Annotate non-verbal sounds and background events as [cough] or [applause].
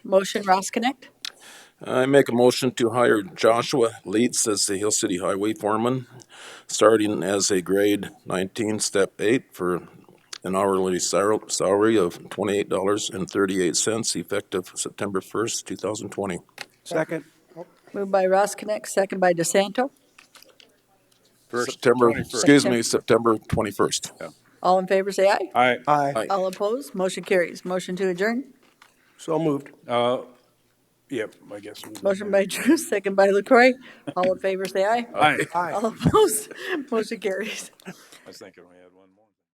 Motion Ross Connect? I make a motion to hire Joshua Leeds as the Hill City Highway Foreman, starting as a grade nineteen, step eight, for an hourly sal- salary of twenty-eight dollars and thirty-eight cents, effective September first, two thousand twenty. Second. Moved by Ross Connect, second by DeSanto. First, September, 21st. excuse me, September twenty-first. All in favor, say aye. All right, Aye. Aye. All opposed, motion carries. Motion to adjourn. So moved. yep, I guess. we'll do Motion that. by [laughs] Drew, second by LaCroy. All in favor, say aye. All right, Aye. All opposed, [laughs] motion carries. I was thinking we had one more.